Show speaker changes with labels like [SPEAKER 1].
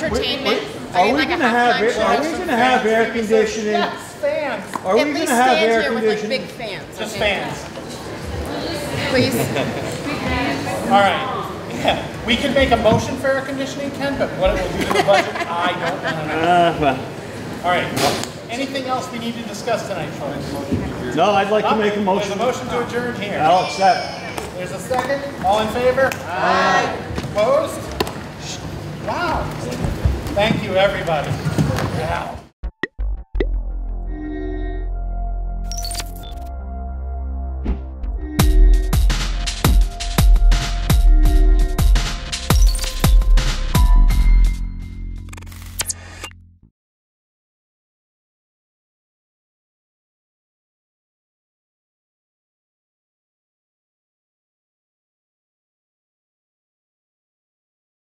[SPEAKER 1] entertainment?
[SPEAKER 2] Are
[SPEAKER 1] need
[SPEAKER 2] we
[SPEAKER 1] like a
[SPEAKER 2] gonna
[SPEAKER 1] hot
[SPEAKER 2] have, air-
[SPEAKER 1] lunch.
[SPEAKER 2] are we gonna have air conditioning?
[SPEAKER 3] Yes, fans,
[SPEAKER 2] Are we
[SPEAKER 1] At
[SPEAKER 2] gonna
[SPEAKER 1] least
[SPEAKER 2] have
[SPEAKER 1] stand
[SPEAKER 2] air
[SPEAKER 1] here with like big
[SPEAKER 2] conditioning?
[SPEAKER 1] fans.
[SPEAKER 3] just
[SPEAKER 1] okay?
[SPEAKER 3] fans.
[SPEAKER 1] Please.
[SPEAKER 3] All right. Yeah, we could make a motion for air conditioning, Ken, but what it will do to the budget, I don't know.
[SPEAKER 4] Uh, well,
[SPEAKER 3] All right. Anything else we need to discuss tonight, Troy?
[SPEAKER 4] No, I'd like to make a
[SPEAKER 3] There's a
[SPEAKER 4] motion.
[SPEAKER 3] motion to adjourn here.
[SPEAKER 4] I'll accept.
[SPEAKER 3] There's a second. All in favor? Aye. Opposed? Wow. Thank you, everybody. Wow.